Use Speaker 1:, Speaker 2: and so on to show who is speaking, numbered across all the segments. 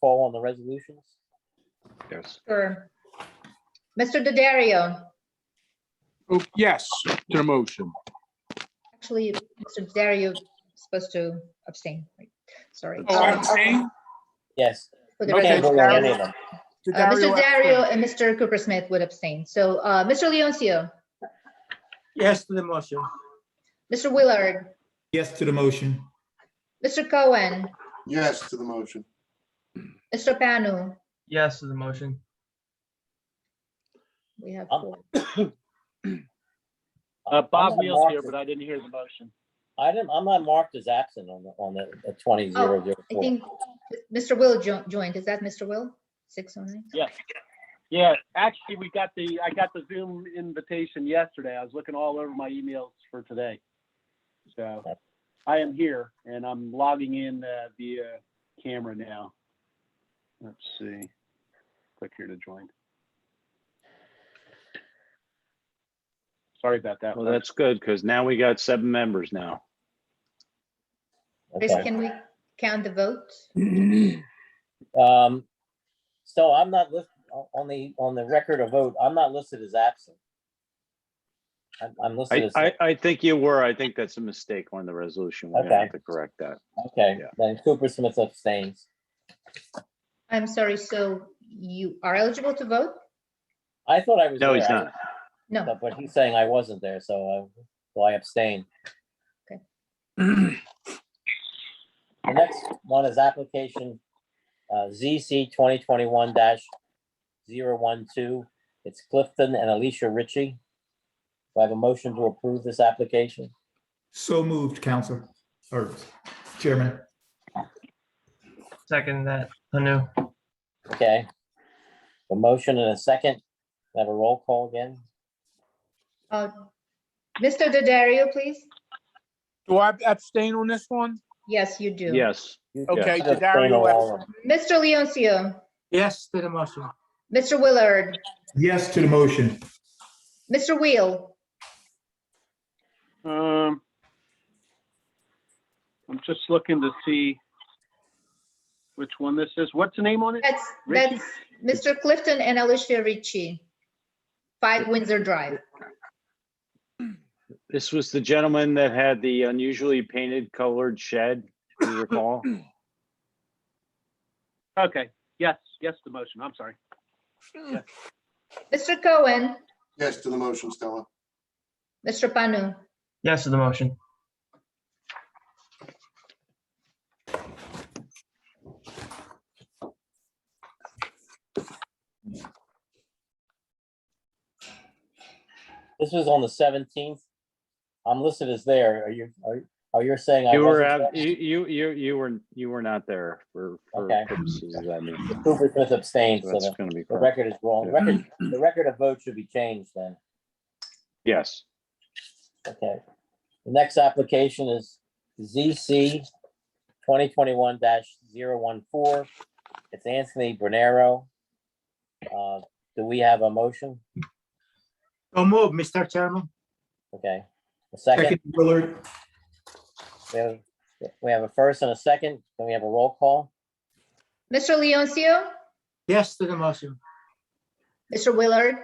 Speaker 1: call on the resolutions?
Speaker 2: Yes.
Speaker 3: Sure. Mr. Daddario,
Speaker 4: Oh, yes, to the motion.
Speaker 3: actually, Mr. Daddario is supposed to abstain, Wait, sorry.
Speaker 4: Oh, I'm saying,
Speaker 1: Yes.
Speaker 3: For the
Speaker 1: You can't vote on any of
Speaker 3: resolution.
Speaker 1: them.
Speaker 4: to
Speaker 3: Uh, Mr.
Speaker 4: Dario,
Speaker 3: Daddario and Mr. Cooper Smith would abstain. So, uh, Mr. Leoncio,
Speaker 5: Yes to the motion.
Speaker 3: Mr. Willard,
Speaker 6: Yes to the motion.
Speaker 3: Mr. Cohen,
Speaker 7: Yes to the motion.
Speaker 3: Mr. Panu.
Speaker 5: Yes to the motion.
Speaker 3: We have
Speaker 1: Um,
Speaker 3: four.
Speaker 8: Uh,
Speaker 1: I'm
Speaker 8: Bob
Speaker 1: not
Speaker 8: Neal's here,
Speaker 1: marked
Speaker 8: but I didn't hear the motion.
Speaker 1: I didn't, I'm not marked as absent on the, on the the twenty zero zero
Speaker 3: Oh,
Speaker 4: Oh.
Speaker 3: I
Speaker 1: four.
Speaker 3: think Mr. Will jo- joined. Is that Mr. Will? Six oh nine?
Speaker 8: Yes. Yeah, actually, we got the, I got the Zoom invitation yesterday. I was looking all over my emails for today. So I am here and I'm logging in uh, via camera now. Let's see. Click here to join. Sorry about that.
Speaker 2: Well, that's good because now we got seven members now.
Speaker 3: Chris, can we count the votes?
Speaker 1: Um, so I'm not list, o- on the, on the record of vote, I'm not listed as absent. I'm, I'm listed
Speaker 2: I,
Speaker 1: as,
Speaker 2: I, I think you were. I think that's a mistake on the resolution. We're gonna
Speaker 1: Okay.
Speaker 2: have to correct that.
Speaker 1: okay,
Speaker 2: yeah.
Speaker 1: then Cooper Smith abstains.
Speaker 3: I'm sorry, so you are eligible to vote?
Speaker 1: I thought I was.
Speaker 2: No, he's
Speaker 1: there. I-
Speaker 2: not.
Speaker 3: No.
Speaker 1: But he's saying I wasn't there, so I, so I abstain.
Speaker 3: Okay.
Speaker 1: The next one is application uh, ZC twenty twenty-one 12 It's Clifton and Alicia Ritchie. Do I have a motion to approve this application?
Speaker 6: So moved, Counselor, or Chairman.
Speaker 5: Second that, Panu.
Speaker 1: Okay. A motion and a second. Can I Have a roll call again?
Speaker 3: Uh, Mr. Daddario, please?
Speaker 4: do I abstain on this one?
Speaker 3: Yes, you do.
Speaker 2: Yes.
Speaker 1: You-
Speaker 4: Okay,
Speaker 1: you
Speaker 4: to
Speaker 1: abstain on
Speaker 4: Dario,
Speaker 1: all of
Speaker 4: abstain.
Speaker 1: them.
Speaker 3: Mr. Leoncio,
Speaker 5: Yes to the motion.
Speaker 3: Mr. Willard,
Speaker 6: Yes to the motion.
Speaker 3: Mr. Wheel,
Speaker 8: Um, I'm just looking to see which one this is. What's the name on it?
Speaker 3: that's, that's Mr. Clifton and Alicia Ritchie. Five Windsor Drive.
Speaker 2: This was the gentleman that had the unusually painted colored shed, if you recall.
Speaker 8: Okay, yes, yes, the motion. I'm sorry.
Speaker 3: Mr. Cohen,
Speaker 7: Yes to the motion, Stella.
Speaker 3: Mr. Panu,
Speaker 5: Yes to the motion.
Speaker 1: This was on the seventeenth. I'm listed as there. Are you, are, are you saying? I
Speaker 2: You were,
Speaker 1: wasn't
Speaker 2: ab-
Speaker 1: there?
Speaker 2: you, you, you, you were, you were not there for, for
Speaker 1: Okay.
Speaker 2: purposes of that meeting.
Speaker 1: Cooper Smith abstains,
Speaker 2: So
Speaker 1: so
Speaker 2: That's
Speaker 1: the
Speaker 2: gonna be
Speaker 1: the
Speaker 2: correct.
Speaker 1: record is wrong.
Speaker 2: Yeah.
Speaker 1: Record, the record of vote should be changed then.
Speaker 2: Yes.
Speaker 1: Okay. The next application is ZC twenty twenty-one 14 It's Anthony Bernero. Uh, do we have a motion?
Speaker 5: So move, Mr. Chairman.
Speaker 1: Okay. A second,
Speaker 6: Second, Willard.
Speaker 1: we have, we have a first and a second, then we have a roll call.
Speaker 3: Mr. Leoncio,
Speaker 5: Yes to the motion.
Speaker 3: Mr. Willard,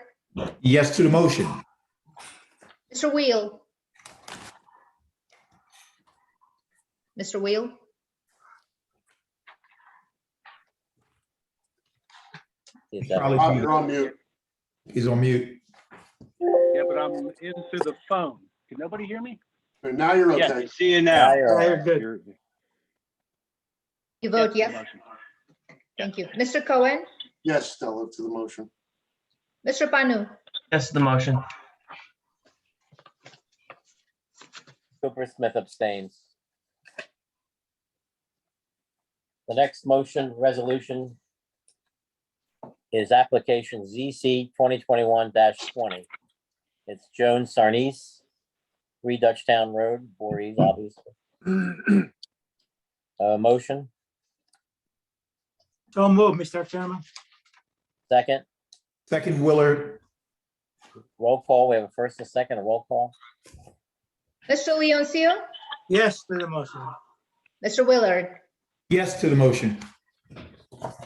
Speaker 6: Yes to the motion.
Speaker 3: Mr. Wheel. Mr. Wheel,
Speaker 1: Is that-
Speaker 6: Probably
Speaker 7: Bob, Ah, you're on mute.
Speaker 6: He's on mute.
Speaker 8: Yeah, but I'm into the phone. Can nobody hear me?
Speaker 7: And Now you're
Speaker 2: Yes,
Speaker 7: okay.
Speaker 2: I see you now.
Speaker 1: Dyer,
Speaker 5: Very good.
Speaker 2: You're-
Speaker 3: you vote
Speaker 8: the
Speaker 3: yes?
Speaker 8: motion.
Speaker 3: Thank you. Mr. Cohen,
Speaker 7: Yes, Stella, to the motion.
Speaker 3: Mr. Panu,
Speaker 5: Yes to the motion.
Speaker 1: Cooper Smith abstains. The next motion resolution is application ZC twenty twenty-one twenty. It's Joan Sarnes, Three Dutchtown Road, Voorhees, obviously. Uh, motion,
Speaker 5: So move, Mr. Chairman.
Speaker 1: second,
Speaker 6: Second, Willard.
Speaker 1: roll call. We have a first and second, a roll call.
Speaker 3: Mr. Leoncio,
Speaker 5: Yes to the motion.
Speaker 3: Mr. Willard,
Speaker 6: Yes to the motion.